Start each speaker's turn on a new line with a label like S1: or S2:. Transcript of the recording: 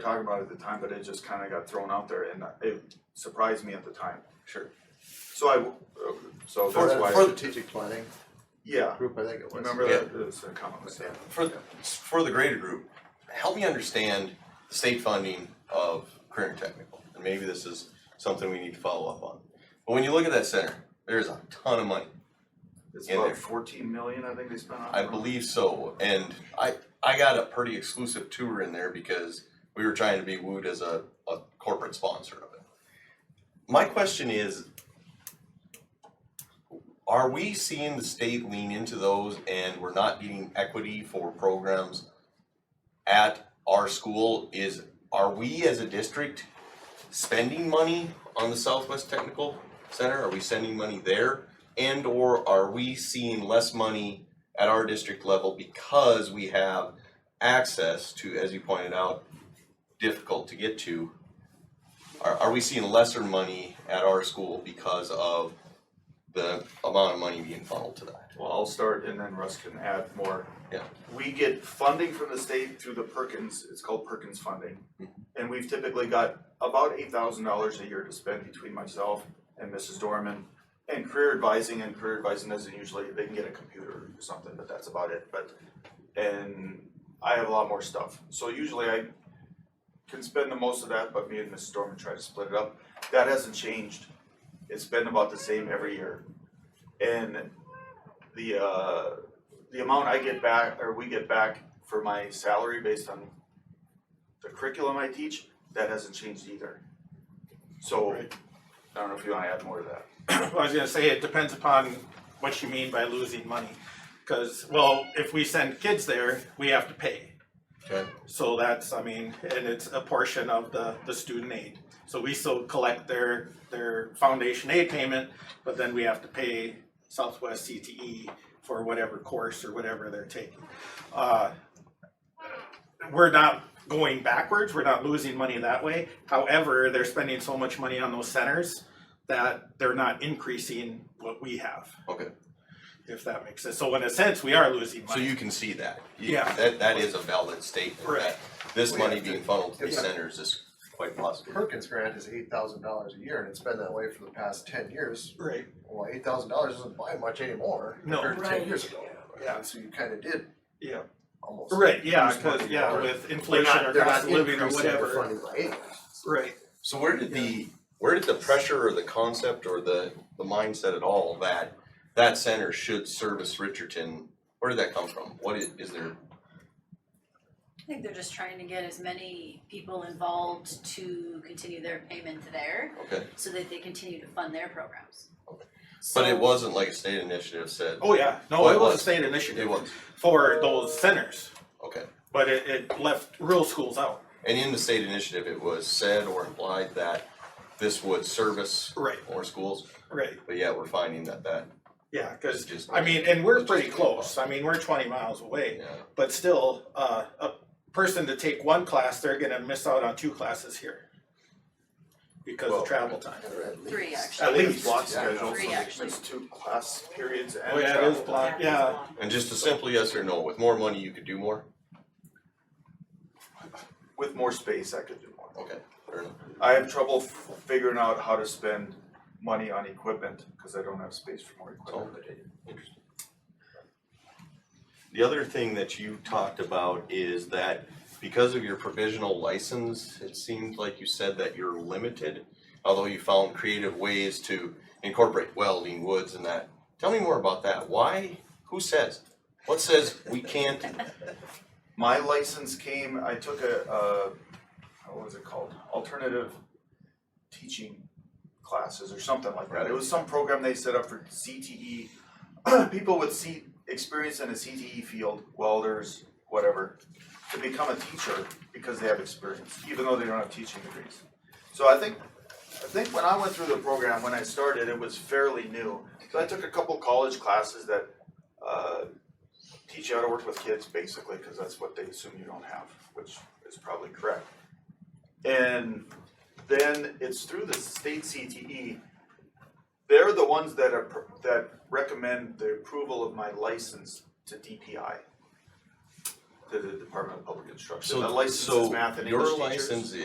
S1: talk about it at the time, but it just kinda got thrown out there and it surprised me at the time.
S2: Sure.
S1: So I, w- uh, so
S3: For
S1: that's
S3: the
S1: why,
S3: for
S1: I-
S3: strategic planning
S1: yeah,
S3: group, I think it was.
S1: remember
S2: Yeah.
S1: that, there's a comment was that.
S2: For, for the greater group, help me understand the state funding of career and technical, and maybe this is something we need to follow up on. But when you look at that center, there is a ton of money,
S1: It's
S2: In
S1: about
S2: there.
S1: fourteen million, I think they spent on. it.
S2: I believe so, and I, I got a pretty exclusive tour in there because we were trying to be wooed as a, a corporate sponsor of it. My question is, are we seeing the state lean into those and we're not getting equity for programs at our school? Is, are we as a district spending money on the Southwest Technical Center? Are we sending money there? And or are we seeing less money at our district level because we have access to, as you pointed out, difficult to get to? Are, are we seeing lesser money at our school because of the amount of money being funneled to that?
S1: Well, I'll start and then Russ can add more.
S2: Yeah.
S1: We get funding from the state through the Perkins, it's called Perkins funding. And we've typically got about eight thousand dollars a year to spend between myself and Mrs. Dorman. And career advising and career advising doesn't usually, they can get a computer or something, but that's about it, but. And I have a lot more stuff, so usually I can spend the most of that, but me and Mrs. Dorman try to split it up. That hasn't changed. It's been about the same every year. And the uh the amount I get back or we get back for my salary based on the curriculum I teach, that hasn't changed either. So I don't know if you wanna add more to that.
S4: Well, I was gonna say, it depends upon what you mean by losing money. Cause, well, if we send kids there, we have to pay.
S2: Okay.
S4: So that's, I mean, and it's a portion of the, the student aid. So we still collect their, their foundation aid payment, but then we have to pay Southwest CTE for whatever course or whatever they're taking. Uh, We're not going backwards, we're not losing money that way. However, they're spending so much money on those centers that they're not increasing what we have,
S2: Okay,
S4: if that makes sense. So in a sense, we are losing
S2: so
S4: money.
S2: you can see that. You-
S4: Yeah.
S2: That, that is a valid statement, that
S4: Correct.
S2: this
S3: We
S2: money
S3: have to-
S2: being funneled to these
S3: Yeah.
S2: centers is quite possible.
S3: Perkins grant is eight thousand dollars a year and it's been that way for the past ten years.
S4: Right,
S3: Well, eight thousand dollars doesn't buy much anymore
S4: No.
S3: compared to ten
S5: Right.
S3: years ago.
S4: Yeah.
S3: And so you kinda did
S4: yeah,
S3: almost.
S4: right, yeah,
S3: lose money
S4: cause, yeah,
S3: more.
S4: with
S3: They're
S4: inflation
S3: not,
S4: or
S3: they're
S4: cost
S3: not
S4: of living or
S3: increasing their
S4: whatever,
S3: funding by any.
S4: right.
S2: So where did the, where did the pressure or the concept or the, the mindset at all that that center should service Richardson, where did that come from? What is, is there,
S5: I think they're just trying to get as many people involved to continue their payment there
S2: okay,
S5: so that they continue to fund their programs.
S2: Okay.
S5: So
S2: but it wasn't like a state initiative said,
S4: Oh, yeah, no,
S2: Well, it
S4: it was a
S2: was.
S4: state
S2: it
S4: initiative
S2: was,
S4: for those centers,
S2: okay.
S4: but it, it left rural schools out.
S2: And in the state initiative, it was said or implied that this would service
S4: Right,
S2: more schools,
S4: right,
S2: but yet we're finding that that
S4: yeah,
S2: is
S4: cause,
S2: just.
S4: I mean, and we're pretty close, I mean, we're twenty miles away.
S2: Yeah,
S4: But still, uh, a person to take one class, they're gonna miss out on two classes here. Because
S1: Well,
S4: of travel time.
S3: They're at
S5: Three,
S3: least.
S5: actually.
S1: I
S4: At
S1: think it's
S4: least.
S1: block
S3: Yeah.
S1: schedule,
S5: Three,
S1: so there's
S5: actually.
S1: just two class periods and
S4: Oh, yeah, it is
S1: travel.
S4: block. yeah.
S2: and just a simple yes or no, with more money, you could do more,
S1: With more space, I could do more.
S2: okay, fair enough.
S1: I have trouble f- figuring out how to spend money on equipment, cause I don't have space for more equipment.
S2: The other thing that you talked about is that because of your provisional license, it seemed like you said that you're limited. Although you found creative ways to incorporate welding, woods and that. Tell me more about that. Why? Who says? What says we can't?
S1: My license came, I took a, uh, what was it called, alternative teaching classes or something like that. It was some program they set up for CTE, people with C, experience in a CTE field, welders, whatever, to become a teacher because they have experience, even though they don't have teaching degrees. So I think, I think when I went through the program, when I started, it was fairly new. So I took a couple college classes that, uh, teach you how to work with kids basically, because that's what they assume you don't have, which is probably correct. And then it's through the state CTE. They're the ones that are, that recommend the approval of my license to DPI. to the Department of Public Instruction.
S2: So-
S1: That license
S2: so
S1: is math and English teachers.
S2: Your license